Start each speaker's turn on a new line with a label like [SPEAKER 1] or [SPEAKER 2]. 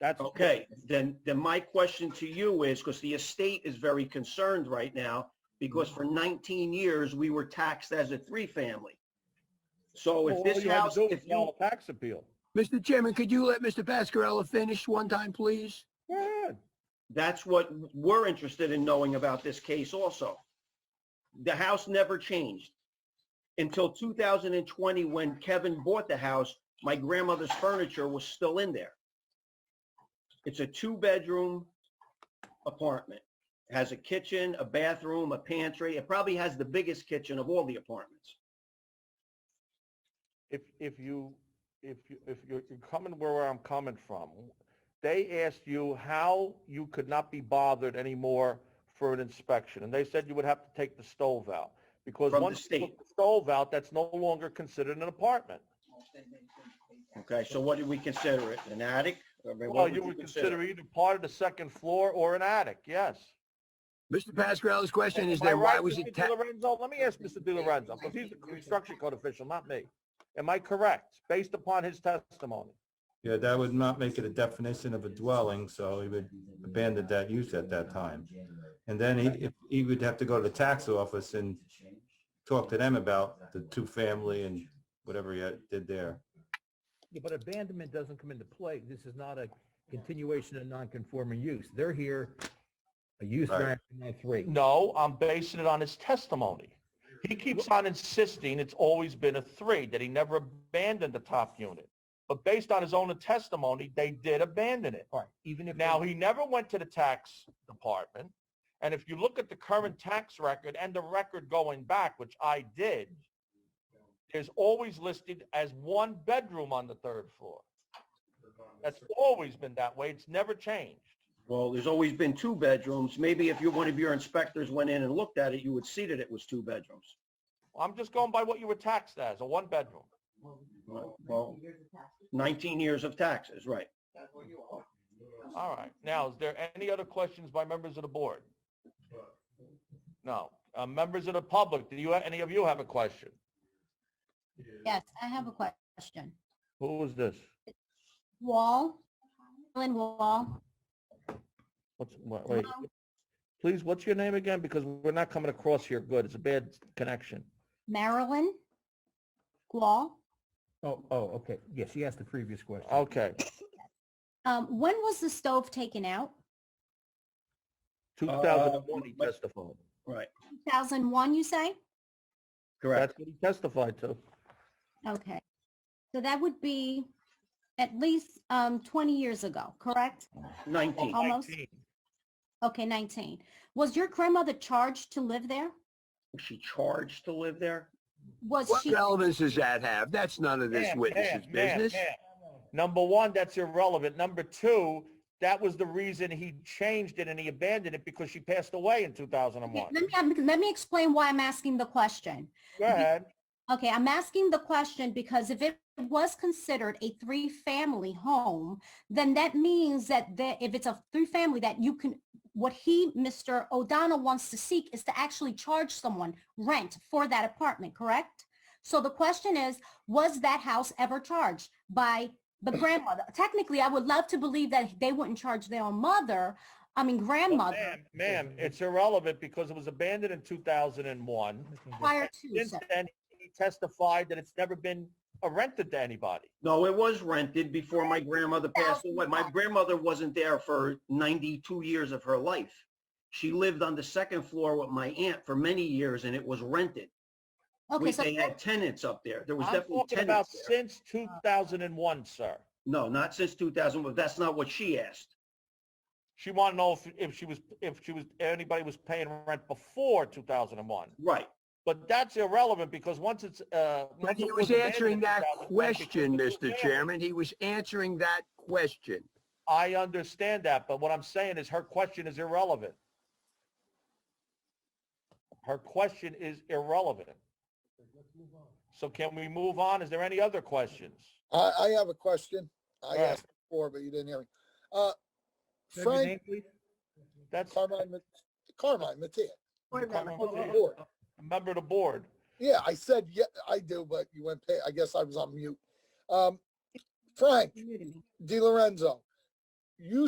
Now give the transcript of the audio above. [SPEAKER 1] That's,
[SPEAKER 2] Okay, then, then my question to you is, because the estate is very concerned right now, because for 19 years, we were taxed as a three-family. So
[SPEAKER 1] all
[SPEAKER 2] if this
[SPEAKER 1] you had to
[SPEAKER 2] house,
[SPEAKER 1] do was
[SPEAKER 2] if you,
[SPEAKER 1] file a tax appeal.
[SPEAKER 3] Mr. Chairman, could you let Mr. Pascarella finish one time, please?
[SPEAKER 1] Go ahead.
[SPEAKER 2] that's what we're interested in knowing about this case also. The house never changed until 2020, when Kevin bought the house, my grandmother's furniture was still in there. It's a two-bedroom apartment. It has a kitchen, a bathroom, a pantry. It probably has the biggest kitchen of all the apartments.
[SPEAKER 1] If, if you, if you, if you're you're coming where I'm coming from, they asked you how you could not be bothered anymore for an inspection, and they said you would have to take the stove out. Because
[SPEAKER 2] From the
[SPEAKER 1] once you
[SPEAKER 2] state.
[SPEAKER 1] took the stove out, that's no longer considered an apartment.
[SPEAKER 2] Okay, so what do we consider it? An attic? I mean, what
[SPEAKER 1] Well, you would consider either part of the second floor or an attic, yes.
[SPEAKER 3] Mr. Pascarella's question is
[SPEAKER 1] Am I
[SPEAKER 3] then why
[SPEAKER 1] right,
[SPEAKER 3] was
[SPEAKER 1] Mr.
[SPEAKER 3] it
[SPEAKER 1] Di
[SPEAKER 3] ta-
[SPEAKER 1] Lorenzo? Let me ask Mr. Di Lorenzo, because he's a construction code official, not me. Am I correct, based upon his testimony?
[SPEAKER 4] Yeah, that would not make it a definition of a dwelling, so he would abandon that use at that time. And then he, if- he would have to go to the tax office and talk to them about the two-family and whatever he had- did there.
[SPEAKER 5] Yeah, but abandonment doesn't come into play. This is not a continuation of non-conforming use. They're here, a use
[SPEAKER 4] Right.
[SPEAKER 5] variance from that three.
[SPEAKER 1] No, I'm basing it on his testimony. He keeps on insisting it's always been a three, that he never abandoned the top unit. But based on his own testimony, they did abandon it.
[SPEAKER 5] All right, even if.
[SPEAKER 1] Now, he never went to the tax department. And if you look at the current tax record and the record going back, which I did, there's always listed as one bedroom on the third floor. That's always been that way. It's never changed.
[SPEAKER 2] Well, there's always been two bedrooms. Maybe if you, one of your inspectors went in and looked at it, you would see that it was two bedrooms.
[SPEAKER 1] I'm just going by what you were taxed as, a one bedroom.
[SPEAKER 2] Well, 19 years of taxes, right.
[SPEAKER 1] All right. Now, is there any other questions by members of the board? No. Uh, members of the public, do you, any of you have a question?
[SPEAKER 6] Yes, I have a question.
[SPEAKER 1] Who is this?
[SPEAKER 6] Wall, Alan Wall,
[SPEAKER 1] What's, wha- wait, please, what's your name again? Because we're not coming across here good. It's a bad connection.
[SPEAKER 6] Marilyn, Wall.
[SPEAKER 5] Oh, oh, okay. Yes, he asked the previous question.
[SPEAKER 1] Okay,
[SPEAKER 6] Um, when was the stove taken out?
[SPEAKER 1] 2001 he
[SPEAKER 2] but-
[SPEAKER 3] Uh,
[SPEAKER 1] testified.
[SPEAKER 2] Right,
[SPEAKER 6] 2001, you say?
[SPEAKER 2] correct.
[SPEAKER 1] That's what he testified to.
[SPEAKER 6] Okay. So that would be at least um, 20 years ago, correct?
[SPEAKER 2] 19.
[SPEAKER 6] Almost. Okay, 19. Was your grandmother charged to live there?
[SPEAKER 2] Was she charged to live there?
[SPEAKER 6] Was
[SPEAKER 3] What
[SPEAKER 6] she?
[SPEAKER 3] relevance does that have? That's none of this
[SPEAKER 1] Ma'am,
[SPEAKER 3] witness's
[SPEAKER 1] ma'am, ma'am,
[SPEAKER 3] business.
[SPEAKER 1] ma'am. Number one, that's irrelevant. Number two, that was the reason he changed it and he abandoned it because she passed away in
[SPEAKER 6] Okay,
[SPEAKER 1] 2001.
[SPEAKER 6] let me let me explain why I'm asking the question.
[SPEAKER 1] Go ahead.
[SPEAKER 6] Okay, I'm asking the question because if it was considered a three-family home, then that means that the, if it's a three-family that you can, what he, Mr. O'Donnell wants to seek is to actually charge someone rent for that apartment, correct? So the question is, was that house ever charged by the grandmother? Technically, I would love to believe that they wouldn't charge their own mother, I mean
[SPEAKER 2] Oh,
[SPEAKER 6] grandmother,
[SPEAKER 1] Ma'am, ma'am, it's irrelevant because it was abandoned in 2001.
[SPEAKER 6] prior to.
[SPEAKER 1] Since
[SPEAKER 6] so-
[SPEAKER 1] then, he testified that it's never been uh, rented to anybody.
[SPEAKER 2] No, it was rented before my grandmother passed away. My grandmother wasn't there for 92 years of her life. She lived on the second floor with my aunt for many years and it was rented.
[SPEAKER 6] Okay,
[SPEAKER 2] We-
[SPEAKER 6] so
[SPEAKER 2] They had tenants up there. There was
[SPEAKER 1] I'm
[SPEAKER 2] definitely
[SPEAKER 1] talking about
[SPEAKER 2] tenants there.
[SPEAKER 1] since 2001, sir.
[SPEAKER 2] No, not since 2000, but that's not what she asked.
[SPEAKER 1] She wanted to know if, if she was, if she was, anybody was paying rent before 2001.
[SPEAKER 2] Right.
[SPEAKER 1] But that's irrelevant because once it's, uh.
[SPEAKER 3] But
[SPEAKER 1] once
[SPEAKER 3] he
[SPEAKER 1] it
[SPEAKER 3] was
[SPEAKER 1] abandoned
[SPEAKER 3] answering
[SPEAKER 1] in
[SPEAKER 3] that
[SPEAKER 1] 2001, because
[SPEAKER 3] question,
[SPEAKER 1] it's
[SPEAKER 3] Mr.
[SPEAKER 1] abandoned.
[SPEAKER 3] Chairman. He was answering that question.
[SPEAKER 1] I understand that, but what I'm saying is her question is irrelevant. Her question is irrelevant. So can we move on? Is there any other questions?
[SPEAKER 7] I, I have a question. I
[SPEAKER 1] Go ahead.
[SPEAKER 7] asked before, but you didn't hear me. Uh,
[SPEAKER 5] Say your
[SPEAKER 7] Frank
[SPEAKER 5] name, please.
[SPEAKER 1] That's
[SPEAKER 7] Carmine, Mat- Carmine Mattia.
[SPEAKER 3] Wait a minute.
[SPEAKER 7] on the
[SPEAKER 1] a
[SPEAKER 7] board.
[SPEAKER 5] Oh.
[SPEAKER 1] member of the board.
[SPEAKER 7] Yeah, I said, yeah, I do, but you went, pa- I guess I was on mute. Um, Frank
[SPEAKER 6] You're new to me.
[SPEAKER 7] Di Lorenzo, you